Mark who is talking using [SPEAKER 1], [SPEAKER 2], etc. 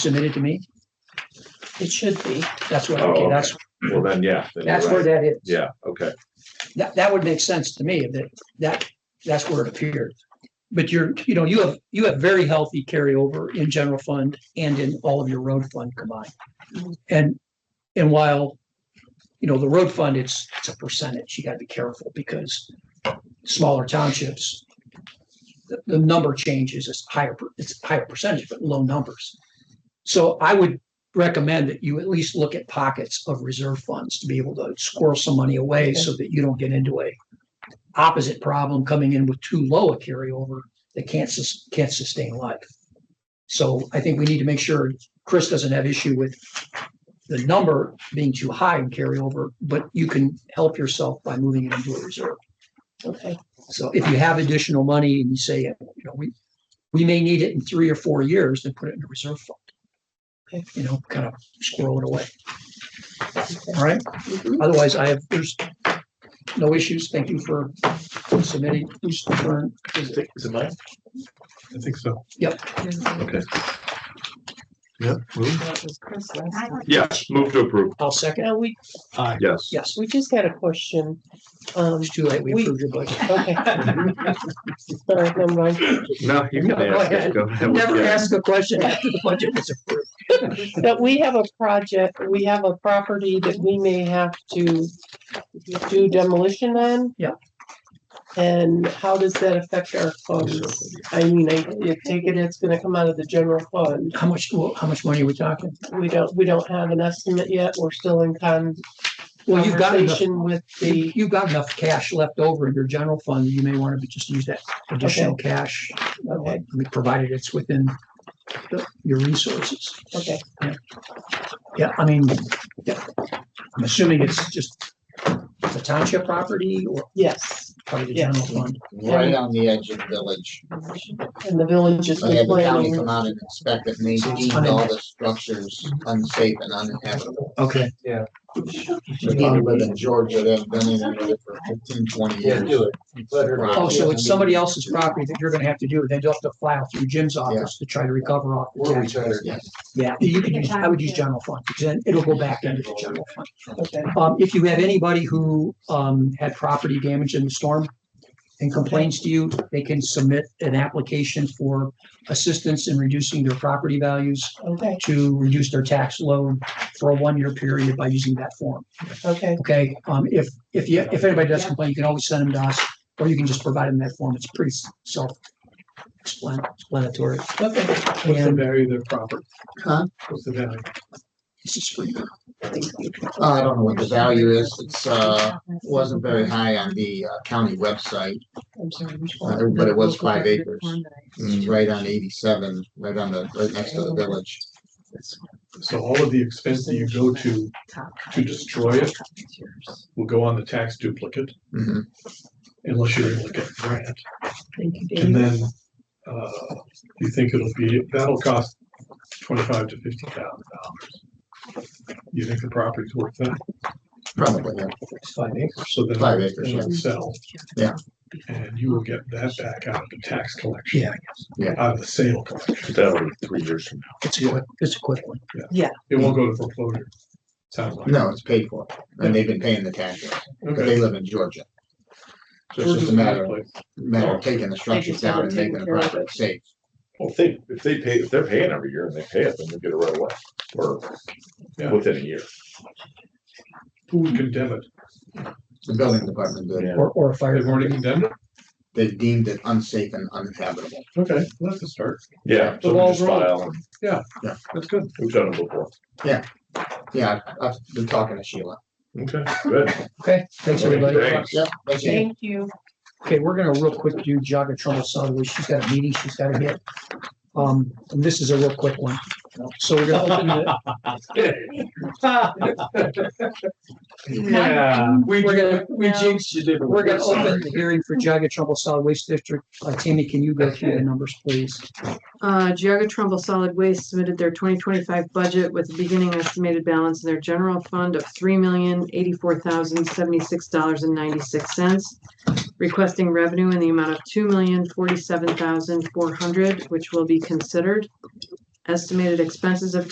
[SPEAKER 1] submitted to me?
[SPEAKER 2] It should be.
[SPEAKER 1] That's what,
[SPEAKER 3] Oh,
[SPEAKER 1] okay,
[SPEAKER 3] okay.
[SPEAKER 1] that's,
[SPEAKER 3] Well, then, yeah. then you're
[SPEAKER 1] that's where
[SPEAKER 3] right.
[SPEAKER 1] that is.
[SPEAKER 3] Yeah, okay.
[SPEAKER 1] That, that would make sense to me that, that, that's where it appeared. But you're, you know, you have, you have very healthy carryover in general fund and in all of your road fund combined. And, and while, you know, the road fund, it's, it's a percentage. You gotta be careful because smaller townships, the, the number changes, it's higher, per- it's higher percentage, but low numbers. So I would recommend that you at least look at pockets of reserve funds to be able to squirrel some money away so that you don't get into a opposite problem coming in with too low a carryover that can't sus- can't sustain life. So I think we need to make sure Chris doesn't have issue with the number being too high in carryover, but you can help yourself by moving it into a reserve.
[SPEAKER 2] Okay.
[SPEAKER 1] So if you have additional money and you say, you know, we, we may need it in three or four years, then put it in a reserve fund.
[SPEAKER 2] Okay.
[SPEAKER 1] You know, kind of squirrel it away. All right.
[SPEAKER 2] Mhm.
[SPEAKER 1] Otherwise, I have, there's no issues. Thank you for submitting. Who's turn is it?
[SPEAKER 3] Is it mine?
[SPEAKER 4] I think so.
[SPEAKER 3] Okay.
[SPEAKER 4] Yeah.
[SPEAKER 2] That was Chris last time.
[SPEAKER 3] Yeah, move to approve.
[SPEAKER 1] I'll second.
[SPEAKER 2] Now, we,
[SPEAKER 3] Ah, Yes.
[SPEAKER 1] Yes,
[SPEAKER 2] we just had a question. Um,
[SPEAKER 1] it's too late. We
[SPEAKER 2] We-
[SPEAKER 1] approved your budget.
[SPEAKER 2] okay. Sorry, never mind.
[SPEAKER 3] No, you can
[SPEAKER 1] No, go
[SPEAKER 3] ask.
[SPEAKER 1] ahead.
[SPEAKER 3] us. Go ahead.
[SPEAKER 1] Never
[SPEAKER 3] Yeah.
[SPEAKER 1] ask a question after the budget was approved.
[SPEAKER 2] That we have a project, we have a property that we may have to do demolition on.
[SPEAKER 1] Yeah.
[SPEAKER 2] And how does that affect our funds? I mean, I, I take it it's gonna come out of the general fund.
[SPEAKER 1] How much, well, how much money are we talking?
[SPEAKER 2] We don't, we don't have an estimate yet. We're still in con-
[SPEAKER 1] Well, you've got enough,
[SPEAKER 2] conversation with
[SPEAKER 1] you-
[SPEAKER 2] the,
[SPEAKER 1] you've got enough cash left over in your general fund. You may want to just use that additional cash. uh,
[SPEAKER 2] Okay.
[SPEAKER 1] Provided it's within the- your resources.
[SPEAKER 2] okay.
[SPEAKER 1] Yeah, I mean, yeah, I'm assuming it's just it's a township property or
[SPEAKER 2] Yes,
[SPEAKER 1] part of the
[SPEAKER 2] Yeah.
[SPEAKER 1] general fund.
[SPEAKER 5] right on the edge of the village.
[SPEAKER 2] and the village has
[SPEAKER 5] They
[SPEAKER 2] been
[SPEAKER 5] had Oh, the county
[SPEAKER 2] planning.
[SPEAKER 5] come out and inspect it, and they deemed all the structures unsafe and uninhabitable.
[SPEAKER 1] Okay.
[SPEAKER 5] The people live in Georgia, they've been in there for 15, 20
[SPEAKER 6] Yeah,
[SPEAKER 5] years.
[SPEAKER 6] do it. You let her-
[SPEAKER 5] Right.
[SPEAKER 1] Oh, so it's somebody else's property that you're gonna have to do, then you'll have to file through Jim's office to try to recover off. the
[SPEAKER 6] We're
[SPEAKER 1] tax.
[SPEAKER 6] each other.
[SPEAKER 5] Yes.
[SPEAKER 1] Yeah, you could use, I would use general fund, because then it'll go back into the general fund.
[SPEAKER 2] Okay,
[SPEAKER 1] Um, if you have anybody who, um, had property damage in the storm and complains to you, they can submit an application for assistance in reducing their property values.
[SPEAKER 2] okay,
[SPEAKER 1] to reduce their tax load for a one-year period by using that form.
[SPEAKER 2] okay,
[SPEAKER 1] Okay, um, if, if you, if anybody does complain, you can always send them to us, or you can just provide them that form. It's pretty self-explanatory.
[SPEAKER 2] okay.
[SPEAKER 4] What's the
[SPEAKER 1] And
[SPEAKER 4] value of their property?
[SPEAKER 5] Huh?
[SPEAKER 4] What's the value?
[SPEAKER 1] this is free.
[SPEAKER 5] Uh, I don't know what the value is. It's, uh, wasn't very high on the uh, county website,
[SPEAKER 2] I'm sorry, which
[SPEAKER 5] uh,
[SPEAKER 2] one?
[SPEAKER 5] but it was five acres. Mm, Right on eighty-seven, right on the, right next to the village.
[SPEAKER 4] So all of the expense that you go to to destroy it will go on the tax duplicate
[SPEAKER 5] Mhm.
[SPEAKER 4] unless you're able to get a grant.
[SPEAKER 2] Thank you,
[SPEAKER 4] And
[SPEAKER 2] Dave.
[SPEAKER 4] then, uh, you think it'll be, that'll cost twenty-five to fifty thousand dollars. You think the property's worth that?
[SPEAKER 5] Probably, yeah.
[SPEAKER 1] It's five acres.
[SPEAKER 4] So then
[SPEAKER 5] Five acres,
[SPEAKER 4] it'll sell.
[SPEAKER 5] Yeah.
[SPEAKER 4] And you will get that back out of the tax collection.
[SPEAKER 1] Yeah,
[SPEAKER 5] Yeah.
[SPEAKER 4] Out of the sale collection.
[SPEAKER 3] That'll be three years from
[SPEAKER 1] it's a quick, it's a quick one.
[SPEAKER 4] It won't go to foreclosure. Sounds like.
[SPEAKER 5] No, it's paid for, and they've been paying the taxes, but
[SPEAKER 4] Okay.
[SPEAKER 5] they live in Georgia. So it's
[SPEAKER 4] Georgia's
[SPEAKER 5] just a
[SPEAKER 4] a good
[SPEAKER 5] matter of
[SPEAKER 4] place.
[SPEAKER 5] matter
[SPEAKER 6] Oh.
[SPEAKER 5] of taking the structures down and making the property safe.
[SPEAKER 3] Well, if they, if they pay, if they're paying every year and they pay it, then they get it right away or
[SPEAKER 4] Yeah.
[SPEAKER 3] within a year.
[SPEAKER 4] Who would condemn it?
[SPEAKER 5] The building department did.
[SPEAKER 1] Or, or a fire.
[SPEAKER 4] They've already condemned it?
[SPEAKER 5] They deemed it unsafe and uninhabitable.
[SPEAKER 4] Okay, well, that's a start.
[SPEAKER 3] Yeah.
[SPEAKER 4] The
[SPEAKER 3] so we
[SPEAKER 4] wall's
[SPEAKER 3] just
[SPEAKER 4] wrong.
[SPEAKER 3] file and-
[SPEAKER 4] That's good.
[SPEAKER 3] We've done it before.
[SPEAKER 5] Yeah, I've- I've been talking to Sheila.
[SPEAKER 3] Okay, good.
[SPEAKER 1] Okay, thanks, everybody.
[SPEAKER 3] Thanks.
[SPEAKER 5] Yep, that's it.
[SPEAKER 2] Thank you.
[SPEAKER 1] Okay, we're gonna real quick do Jaga Trumbull Sutherland. She's got a meeting she's gotta hit. Um, and this is a real quick one. So we're gonna open the,
[SPEAKER 6] Yeah. We,
[SPEAKER 1] We're gonna-
[SPEAKER 6] we jinxed you, didn't we?
[SPEAKER 1] We're gonna
[SPEAKER 6] Sorry.
[SPEAKER 1] open the hearing for Jaga Trumbull Solid Waste District. Uh, Tammy, can you go through the numbers, please?
[SPEAKER 7] Uh, Geoga Trumbull Solid Waste submitted their twenty twenty-five budget with a beginning estimated balance in their general fund of three million eighty-four thousand seventy-six dollars and ninety-six cents. Requesting revenue in the amount of two million forty-seven thousand four hundred, which will be considered. Estimated expenses of